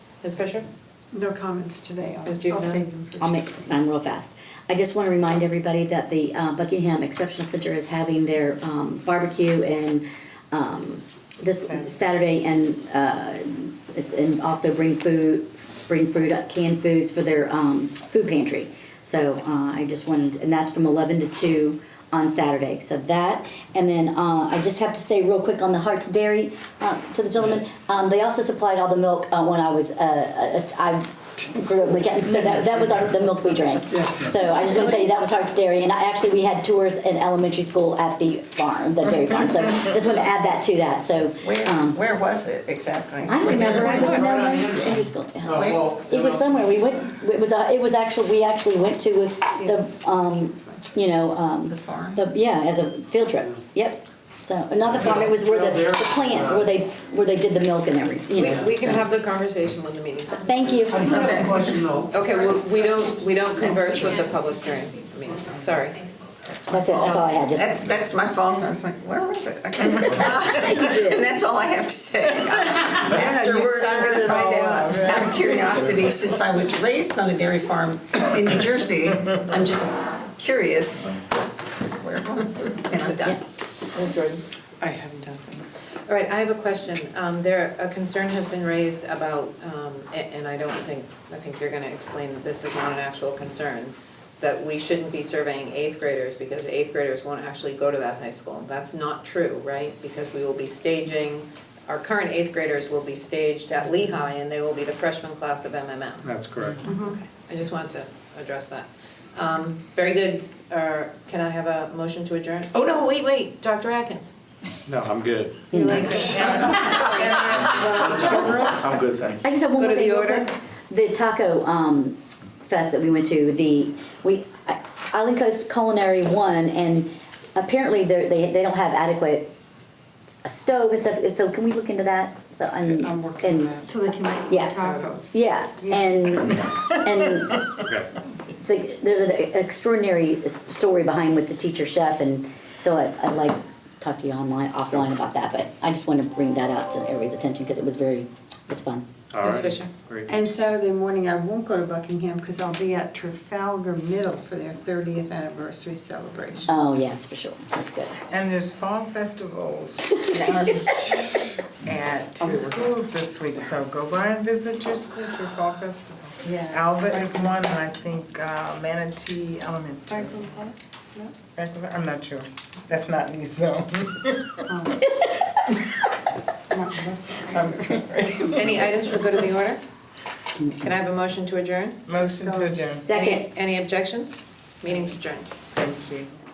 Ms. Fisher? No comments today. I'll- Ms. Juvenile? I'll save them for. I'll make mine real fast. I just want to remind everybody that the uh, Buckingham Exceptional Center is having their um, barbecue and um, this Saturday and uh, it's- and also bring food, bring food up, canned foods for their um, food pantry. So uh, I just wanted, and that's from 11 to 2 on Saturday. So that, and then uh, I just have to say real quick on the Hearts Dairy uh, to the gentleman, um, they also supplied all the milk uh, when I was, uh, uh, I grew up with it. So that, that was our, the milk we drank. Yes. So I just want to tell you, that was Hearts Dairy. And I, actually, we had tours in elementary school at the farm, the dairy farm. So just want to add that to that. So Where, um, where was it exactly? I don't remember. I was in Right on elementary Anderson. elementary school. Uh, Oh, well, It was somewhere. We went. It was. uh, It was actually. We actually went to with the. Um, you know. Um, The farm? the yeah, as a field trip. Yep. So another farm. It was where the, the plant where they where they did the milk and everything. You We, know. we can so. have the conversation when the meeting's. Thank you. I do have a question though. Okay, well, we don't, we don't converse with the public during the meeting, sorry. That's it. That's all I had. Just That's, that's my fault, I was like, where was it? I can't remember. And that's all I have to say. Afterward, I'm gonna find out, out of curiosity, since I was raised on a dairy farm in New Jersey, I'm just curious where it was, and I'm done. Ms. Jordan? I haven't done it. All right, I have a question. Um, There, a concern has been raised about, um, a- and I don't think, I think you're going to explain that this is not an actual concern, that we shouldn't be surveying eighth graders because eighth graders won't actually go to that high school. That's not true, right? Because we will be staging, our current eighth graders will be staged at Lehigh and they will be the freshman class of MMM. That's correct. I just wanted to address that. Um, Very good. Uh, Can I have a motion to adjourn? Oh, no, wait, wait, Dr. Atkins. No, I'm good. You're like- I'm good, thank you. I just have one Go more to thing. the real order. quick. The taco um, fest that we went to, the we I- Island Coast Culinary won, and apparently they're- they they don't have adequate s- a stove and stuff. and So can we look into that? So and, I'm working and- on that. So they can make Yeah. tacos. Yeah, Yeah. and and so there's an extraordinary s- story behind with the teacher chef, and so I, I'd like to talk to you online offline about that. But I just want to bring that out to everybody's attention because it was very it was fun. All Ms. right. Fisher? Great. And Saturday morning, I won't go to Buckingham because I'll be at Trafalgar Middle for their thirtieth anniversary celebration. Oh yes, for sure. That's good. And there's fall festivals at two schools this week, so go by and visit your schools for fall festival. Yeah. Alba is one, and I think uh, Manatee Elementary. Franklin, I'm not sure. That's not me, so Not Buckingham. I'm sorry. Any items for good of the order? Can I have a motion to adjourn? Motion to adjourn. Second. Any any objections? Meeting's adjourned. Thank you.